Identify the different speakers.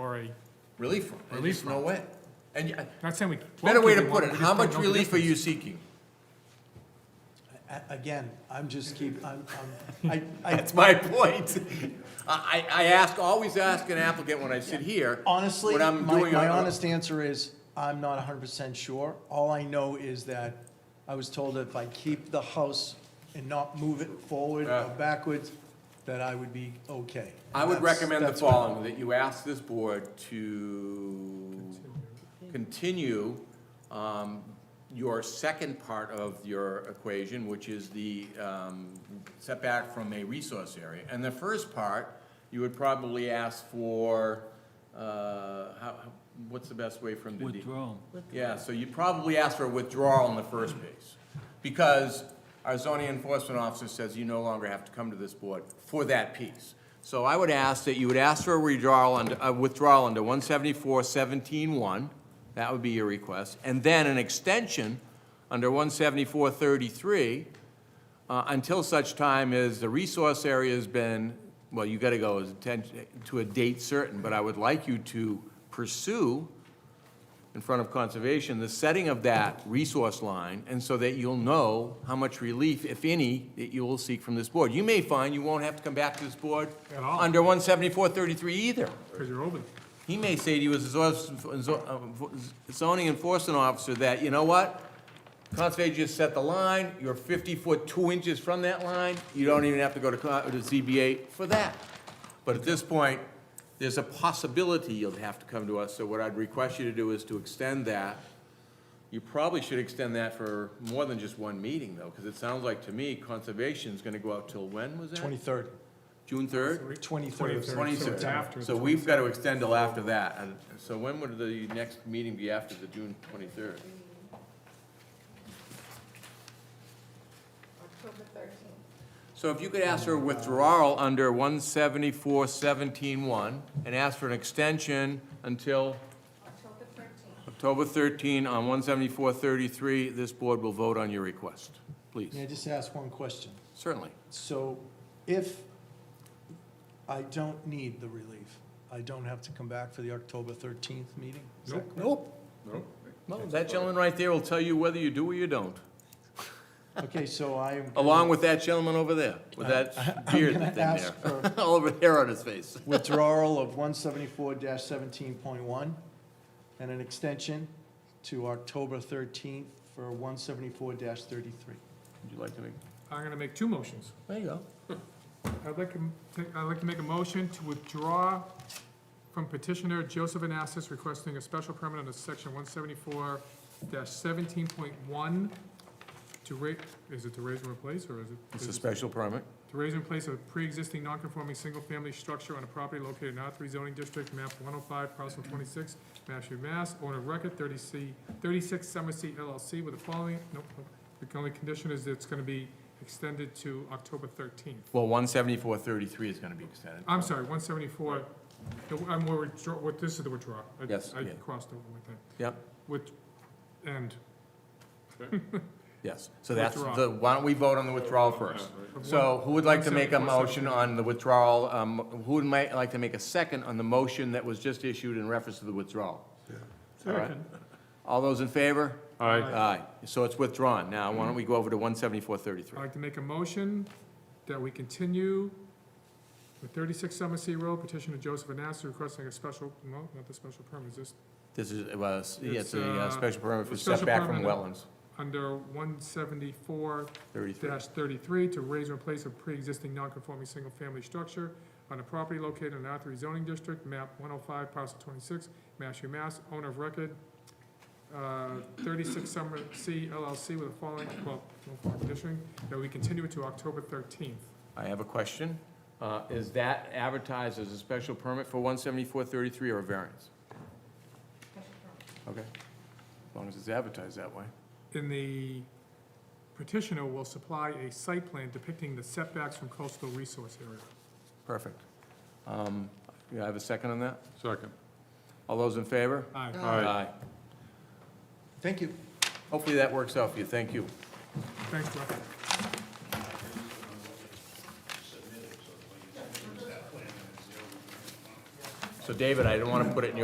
Speaker 1: a,
Speaker 2: Relief from, it.
Speaker 1: Relief
Speaker 2: there's no
Speaker 1: from.
Speaker 2: way. And, y-
Speaker 1: not saying we.
Speaker 2: better
Speaker 1: won't
Speaker 2: way
Speaker 1: give
Speaker 2: to
Speaker 1: one,
Speaker 2: put it,
Speaker 1: we just
Speaker 2: how
Speaker 1: don't
Speaker 2: much
Speaker 1: know the
Speaker 2: relief are you
Speaker 1: difference.
Speaker 2: seeking?
Speaker 3: A- Again, I'm just keep, I'm, I'm, I, I,
Speaker 2: That's my point. I, I I ask, always ask an applicant when I sit here.
Speaker 3: honestly,
Speaker 2: when
Speaker 3: my,
Speaker 2: I'm doing
Speaker 3: my
Speaker 2: a-
Speaker 3: honest answer is, I'm not hundred percent sure. All I know is that I was told if I keep the house and not move it forward
Speaker 2: Yeah.
Speaker 3: or backwards, that I would be okay.
Speaker 2: I would
Speaker 3: That's-
Speaker 2: recommend the
Speaker 3: that's what-
Speaker 2: following, that you ask this board to continue um, your second part of your equation, which is the um, setback from a resource area. And the first part, you would probably ask for, uh, how, what's the best way from the? D-
Speaker 4: Withdrawal.
Speaker 2: Yeah, so you probably ask for a withdrawal in the first place, because our zoning enforcement officer says you no longer have to come to this board for that piece. So I would ask that you would ask for a withdrawal under, a withdrawal under one seventy-four seventeen one, that would be your request, and then an extension under one seventy-four thirty-three, uh, until such time as the resource area has been, well, you gotta go as atten- to a date certain, but I would like you to pursue in front of conservation, the setting of that resource line, and so that you'll know how much relief, if any, that you will seek from this board. You may find you won't have to come back to this board
Speaker 1: At all.
Speaker 2: under one seventy-four thirty-three either.
Speaker 1: Because you're over there.
Speaker 2: He may say to you as a zo- zo- uh, zoning enforcement officer that, you know what? Conservation just set the line, you're fifty foot two inches from that line, you don't even have to go to, co- to ZBA for that. But at this point, there's a possibility you'll have to come to us, so what I'd request you to do is to extend that. You probably should extend that for more than just one meeting, though, because it sounds like to me, conservation's gonna go out till when was that?
Speaker 3: Twenty-third,
Speaker 2: June third?
Speaker 3: twenty-third.
Speaker 1: Twenty-third. So it's after
Speaker 2: Twenty-third,
Speaker 1: the
Speaker 2: so we've got to extend till after that, and so when would the next meeting be after the June twenty-third?
Speaker 5: October thirteenth.
Speaker 2: So if you could ask for a withdrawal under one seventy-four seventeen one, and ask for an extension until
Speaker 5: October thirteenth.
Speaker 2: October thirteen on one seventy-four thirty-three, this board will vote on your request,
Speaker 3: May I
Speaker 2: please,
Speaker 3: just ask one question?
Speaker 2: certainly.
Speaker 3: So if I don't need the relief, I don't have to come back for the October thirteenth meeting? Is that
Speaker 1: Nope.
Speaker 2: Nope.
Speaker 1: Nope.
Speaker 2: Well, that gentleman right there will tell you whether you do or you don't,
Speaker 3: Okay, so I.
Speaker 2: along with that gentleman over there, with that beard
Speaker 3: gonna
Speaker 2: thing there,
Speaker 3: ask for-
Speaker 2: all over hair on his face.
Speaker 3: Withdrawal of one seventy-four seventeen point one and an extension to October thirteenth for one seventy-four thirty-three.
Speaker 2: Would you like to make?
Speaker 1: I'm gonna make two motions.
Speaker 2: There you go.
Speaker 1: I'd like to, m- take- I'd like to make a motion to withdraw from petitioner Joseph Anastas requesting a special permit under section one seventy-four seventeen point one to ra, is it to raise and replace, or is it?
Speaker 2: It's a special permit.
Speaker 1: To raise and place a pre-existing non-conforming single-family structure on a property located in R three zoning district, map one oh five, parcel twenty-six, Mashpee, Mass. Owner of record, thirty C, thirty-six Summer Seat LLC with the following, nope, nope. the only condition is it's gonna be extended to October thirteenth.
Speaker 2: Well, one seventy-four thirty-three is gonna be extended.
Speaker 1: I'm sorry, one seventy-four, I'm, more withdraw, what, this is the withdrawal. I-
Speaker 2: Yes,
Speaker 1: I
Speaker 2: yeah.
Speaker 1: crossed over with that.
Speaker 2: Yep.
Speaker 1: With, and,
Speaker 2: Yes, so that's
Speaker 1: Withdraw.
Speaker 2: the, why don't we vote on the withdrawal first? So who would like to make a motion on the withdrawal, um, who would might like to make a second on the motion that was just issued in reference to the withdrawal? All right. All those in favor?
Speaker 1: I'd
Speaker 2: Aye, so it's withdrawn. Now, why don't we go over to one seventy-four thirty-three?
Speaker 1: like to make a motion that we continue with thirty-six Summer Sea Road, petition of Joseph Anastas requesting a special, no, not the special permit, is this
Speaker 2: This is, uh, yeah, it's
Speaker 1: It's,
Speaker 2: a uh,
Speaker 1: uh,
Speaker 2: special permit for
Speaker 1: a special
Speaker 2: setback from
Speaker 1: permit.
Speaker 2: wetlands,
Speaker 1: under one seventy-four
Speaker 2: thirty-three.
Speaker 1: dash thirty-three to raise and replace a pre-existing non-conforming single-family structure on a property located in R three zoning district, map one oh five, parcel twenty-six, Mashpee, Mass, owner of record, uh, thirty-six Summer C LLC with the following, well, no following condition, that we continue it to October thirteenth.
Speaker 2: I have a question. Uh, is that advertised as a special permit for one seventy-four thirty-three or a variance? Okay, as long as it's advertised that way.
Speaker 1: In the petitioner will supply a site plan depicting the setbacks from coastal resource area.
Speaker 2: Perfect. Um, You have a second on that?
Speaker 6: Second.
Speaker 2: All those in favor?
Speaker 1: Aye.
Speaker 6: Aye.
Speaker 3: Thank you.
Speaker 2: Hopefully that works out for you, thank you.
Speaker 1: Thanks, Rob.
Speaker 2: So David, I didn't want to put it in your